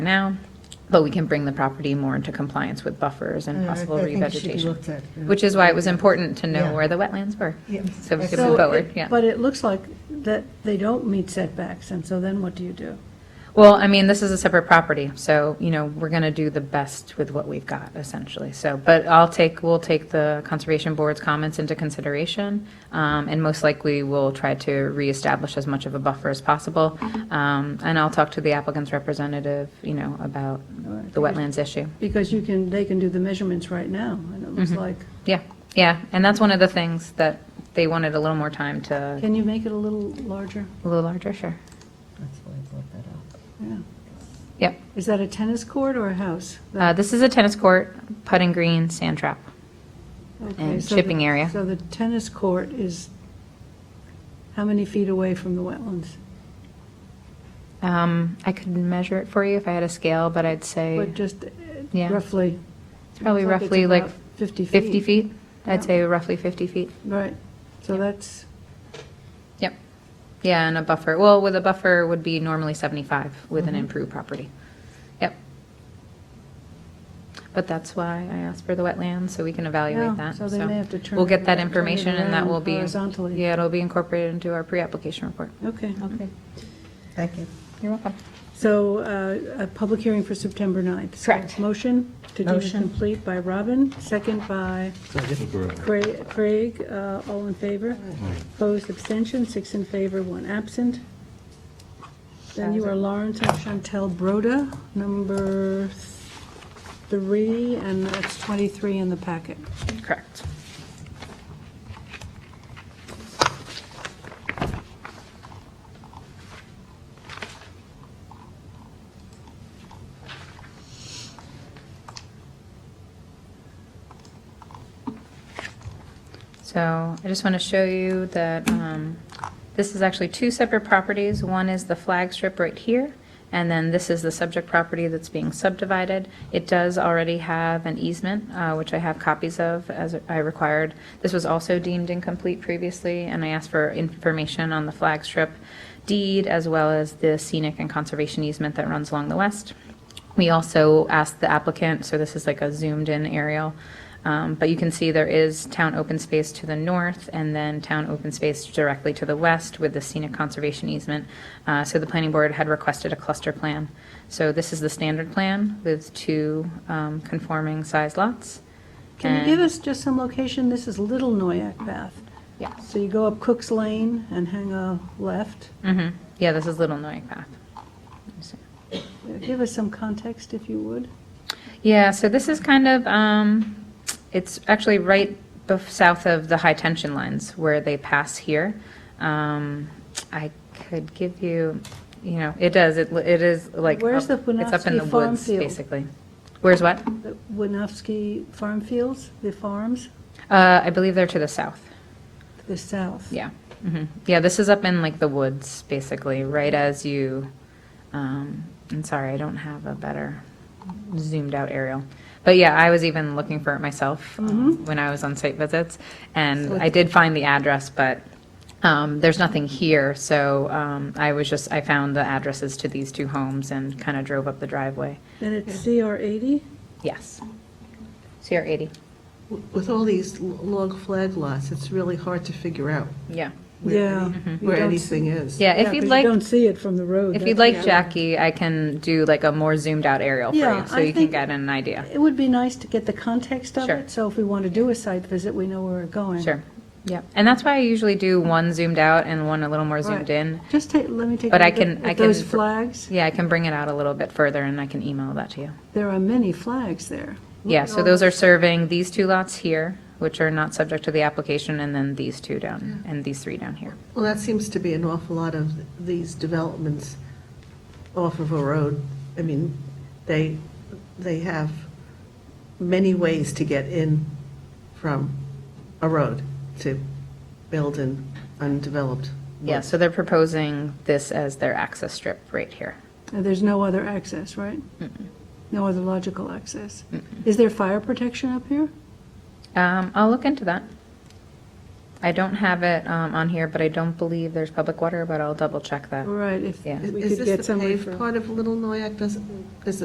now, but we can bring the property more into compliance with buffers and Yeah, I- possible Uh, I think it should be revegetation. looked at, yeah. Which is why it was important to know Yeah. where the wetlands were. Yeah. So we could So move it- forward, yeah. But it looks like that they don't meet setbacks, and so then what do you do? Well, I mean, this is a separate property, so, you know, we're going to do the best with what we've got essentially. So, but I'll take, we'll take the Conservation Board's comments into consideration. um, And most likely, we'll try to reestablish as much of a buffer as possible. Um, And I'll talk to the applicant's representative, you know, about the wetlands issue. Because you can, they can do the measurements right now, and it Mm-hmm. looks like, Yeah, yeah, and that's one of the things that they wanted a little more time to, can you make it a little larger? a little larger, sure. That's why I brought that up. Yeah. Yep. Is that a tennis court or a house? Uh, This is a tennis court, putting green, sand trap. Okay, Uh, and so the- shipping area. So the tennis court is how many feet away from the wetlands? Um, I could measure it for you if I had a scale, but I'd say But just uh, Yeah. roughly. it's probably looks roughly it's like about 50 feet. 50 feet. I'd Yeah. say roughly 50 feet. Right, so Yeah. that's, Yep. Yeah, and a buffer, well, with a buffer would be normally 75 with Mm-hmm. an improved property. Yep. But that's why I asked for the wetlands, so we can Yeah, evaluate that. so they may have to turn We'll get it- that turn it information and that around will be. horizontally. Yeah, it'll be incorporated into our pre-application report. okay. Okay. Thank you. You're welcome. So uh, a public hearing for September 9th. So Correct. Motion to deem it Motion. complete by Robin, second by Cra- Craig, Uh, all in favor. Opposed, abstention, six in favor, one absent. Then you are Lawrence and Chantel Broda, number three, and that's 23 in the packet. Correct. So I just want to show you that um, this is actually two separate properties. One is the flag strip right here, and then this is the subject property that's being subdivided. It does already have an easement, uh, which I have copies of as I required. This was also deemed incomplete previously, and I asked for information on the flag strip deed as well as the scenic and conservation easement that runs along the west. We also asked the applicant, so this is like a zoomed-in aerial, um, but you can see there is town open space to the north and then town open space directly to the west with the scenic conservation easement. Uh, So the planning board had requested a cluster plan. So this is the standard plan with two um, conforming size lots. Can you give And- us just some location? This is Little Noyak Path. Yeah. So you go up Cook's Lane and hang a left. Mhm. Yeah, this is Little Noyak Path. Let me see. Give us some context, if you would. Yeah, so this is kind of, um, it's actually right bef- south of the high tension lines where they pass here. Um, I could give you, you know, it does, it, li- it is like. Where's up- the It's up in the Winovsky farm woods, field? basically. Where's what? The Winofsky Farm Fields, the farms, Uh, I believe they're to the south, to the south. yeah. Mhm. Yeah, this is up in like the woods, basically, right as you, um, I'm sorry, I don't have a better zoomed out aerial. But yeah, I was even looking for it myself Mm-hmm. um, when I was on site visits. And I did find the address, but um, there's nothing here. So um, I was just, I found the addresses to these two homes and kind of drove up the driveway. And it's CR 80? Yes. CR 80. With all these l- long flag lots, it's really hard to figure out Yeah. where Yeah. any- Mhm. where You don't anything is. Mm-hmm. Yeah, if 'cause you'd like, You don't see it from the road. if you'd Oh, that's- like, Jackie, I can do like a more zoomed out aerial for Yeah, you. So I you can think- get an idea. It would be nice to get the context of Sure. it, so if we want to do a site visit, we know where we're going. Sure. Yeah. And that's why I usually do one zoomed out and one a little more zoomed Right. in. Just take, let me take a But I look can- at- I at those can- flags. Yeah, I can bring it out a little bit further and I can email that to you. There are many flags there. Yeah, so those are serving these two lots here, which are not subject to the application, and then these two down, and these three down here. Well, that seems to be an awful lot of these developments off of a road. I mean, they, they have many ways to get in from a road to build in undeveloped. Yeah, so they're proposing this as their access strip right here. And There's no other access, right? No other logical access. Is there fire protection up here? Um, I'll look into that. I don't have it um, on here, but I don't believe there's public water, but I'll double check that. All right, if Uh, Yeah. we Is could this get the some paved referral. part of Little Noyak? Does, is